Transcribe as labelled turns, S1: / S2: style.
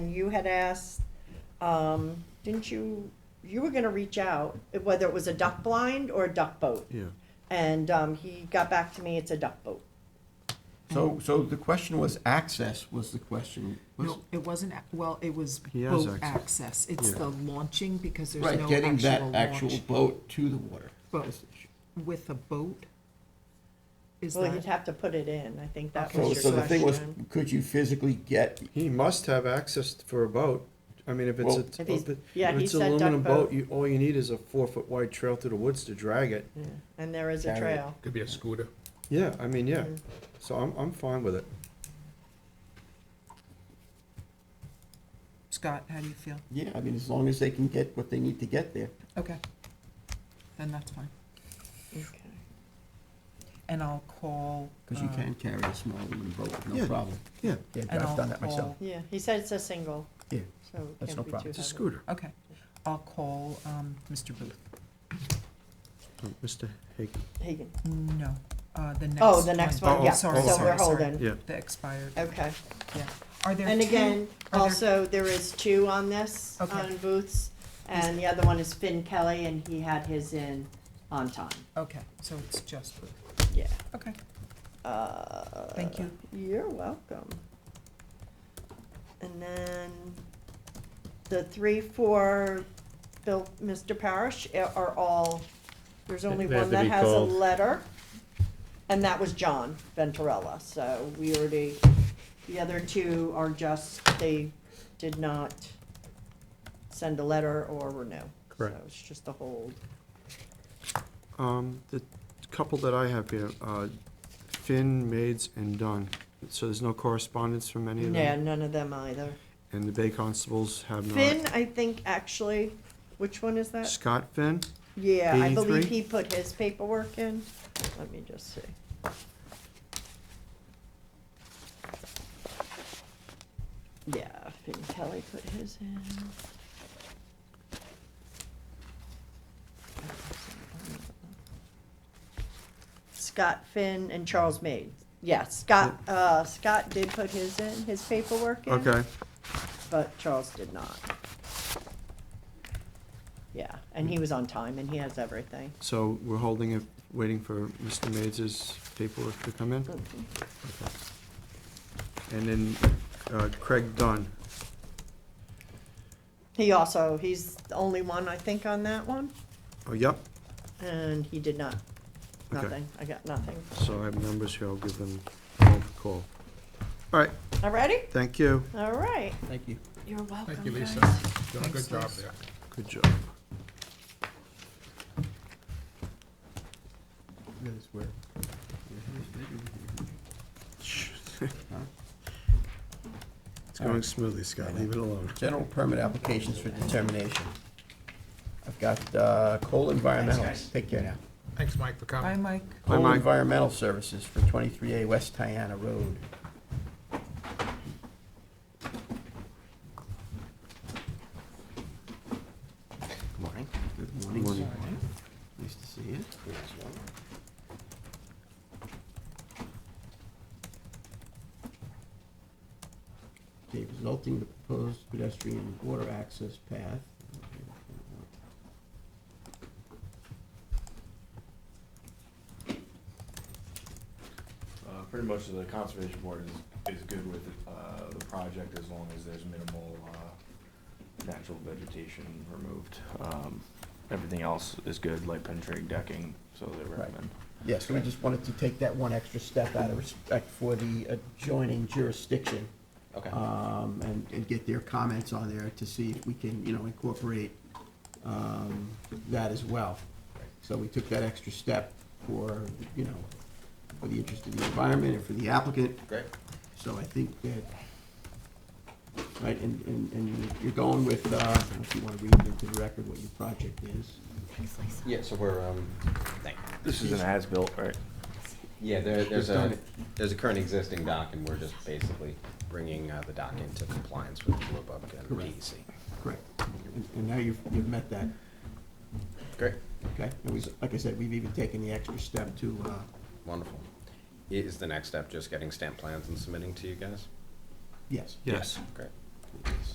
S1: and you had asked, um, didn't you, you were gonna reach out, whether it was a duck blind or a duck boat.
S2: Yeah.
S1: And, um, he got back to me, it's a duck boat.
S3: So,
S4: Mm.
S3: so the question was access was the question. was-
S4: No, it wasn't, ac- well, it was
S2: He has
S4: boat access. It's
S2: Yeah.
S4: the launching because there's
S3: Right,
S4: no
S3: getting that
S4: actual
S3: actual
S4: launch.
S3: boat to the water.
S4: Boat.
S3: That's the issue.
S4: With a boat? Is
S1: Well, you'd
S4: that,
S1: have to put it in, I think that
S3: So,
S1: was
S3: so
S1: your
S3: the thing was,
S1: question.
S3: could you physically get,
S2: He must have access for a boat. I mean, if it's
S3: Well-
S2: a,
S1: If he's-
S2: if it-
S1: yeah,
S2: if
S1: he
S2: it's
S1: said duck
S2: aluminum
S1: boat.
S2: boat, you, all you need is a four-foot wide trail through the woods to drag it.
S1: Yeah, And there is a
S3: Carry it.
S1: trail.
S5: Could be a scooter.
S2: Yeah, I mean, yeah.
S1: Mhm.
S2: So I'm, I'm fine with it.
S4: Scott, how do you feel?
S3: yeah, I mean, as long as they can get what they need to get there.
S4: Okay. Then that's fine.
S1: Okay.
S4: And I'll call.
S3: Because you
S4: uh,
S3: can carry a small aluminum boat,
S2: Yeah.
S3: no problem.
S2: Yeah.
S3: Yeah,
S4: And I'll call-
S1: Yeah, he said it's a single,
S3: Yeah,
S1: so it
S3: That's
S1: can't
S3: no
S1: be
S3: problem.
S1: too
S2: It's a
S1: heavy.
S2: scooter.
S4: Okay, I'll call, um, Mr. Booth.
S2: Oh, Mr. Hagan.
S1: Hagan.
S4: No, uh, the next one.
S1: Oh, the next one,
S2: Oh,
S1: yeah,
S2: oh,
S1: so
S4: Sorry, sorry,
S1: we're
S4: sorry.
S1: holding.
S2: Yeah.
S4: The expired,
S1: Okay.
S4: yeah. Are there two?
S1: And again,
S4: are there-
S1: also, there is two on this,
S4: Okay.
S1: on Booth's, and the other one is Finn Kelly, and he had his in on time,
S4: Okay, so it's just Booth.
S1: yeah.
S4: Okay,
S1: Uh,
S4: Thank you.
S1: You're welcome. And then the three, four, Bill, Mr. Parrish a- are all, there's only
S5: They have
S1: one
S5: to
S1: that
S5: be
S1: has a
S5: called.
S1: letter. And that was John Venturella, so we already, the other two are just, they did not send a letter or renew.
S5: Correct.
S1: So it's just a hold.
S2: Um, the couple that I have here, uh, Finn, Maids, and Dunn. So there's no correspondence from any of them?
S1: Yeah, none of them either.
S2: And the Bay Constables have not.
S1: Finn, uh, I think, actually, which one is that?
S2: Scott Finn?
S1: Yeah, I believe
S2: 83?
S1: he put his paperwork in. Let me just see. Yeah, Finn Kelly put his in. Scott Finn and Charles Maid. Yeah, Scott, uh, Scott did put his in, his paperwork in
S2: Okay.
S1: but Charles did not. Yeah, and he was on time and he has everything.
S2: So we're holding it, waiting for Mr. Mays' paperwork to come in? And then uh, Craig Dunn.
S1: He also, he's the only one, I think, on that one,
S2: Oh, yep,
S1: and he did not,
S2: Okay.
S1: nothing, I got nothing.
S2: so I have numbers here, I'll give them both a call. All right,
S1: All righty?
S2: thank you,
S1: All right.
S3: Thank you.
S1: You're welcome,
S5: Thank you, Lisa.
S1: guys.
S5: You done a
S4: Thanks,
S5: good job
S4: Lisa.
S5: there.
S2: good job. It's
S3: All
S2: going
S3: right.
S2: smoothly, Scott, leave it alone.
S3: General permit applications for determination. I've got uh, Cole Environmental, take care now.
S5: Thanks, Mike, for
S4: bye,
S5: coming.
S4: Mike.
S2: Hi,
S3: Cole
S2: Mike.
S3: Environmental Services for 23A West Tiana Road. Good morning. Good morning.
S2: Morning.
S3: Nice to see you. Okay, resulting the proposed pedestrian water access path.
S6: Uh, pretty much the conservation board is, is good with, uh, the project as long as there's minimal, uh, natural vegetation removed. Um, everything else is good, like penetrating decking, so they recommend.
S3: Yeah, so we just wanted to take that one extra step out of respect for the adjoining jurisdiction.
S6: Okay.
S3: um, and, and get their comments on there to see if we can, you know, incorporate, um, that as well. So we took that extra step for, you know, for the interest of the environment and for the applicant,
S6: Great.
S3: so I think that, right, and, and, and you're going with, uh, I don't know if you wanna read into the record what your project is.
S7: Yeah, so we're, um,
S6: This is an as-built, right?
S7: yeah, there,
S3: We've
S7: there's
S3: done
S7: a,
S3: it.
S7: there's a current existing dock, and we're just basically bringing uh, the dock into compliance with Blue and E
S3: Correct.
S7: DEC.
S3: Correct. And, and now you've, you've met that,
S7: Great.
S3: okay? And we, like I said, we've even taken the extra step to, uh,
S7: Wonderful. I- Is the next step just getting stamp plans and submitting to you guys?
S3: yes.
S2: Yes.
S7: Great.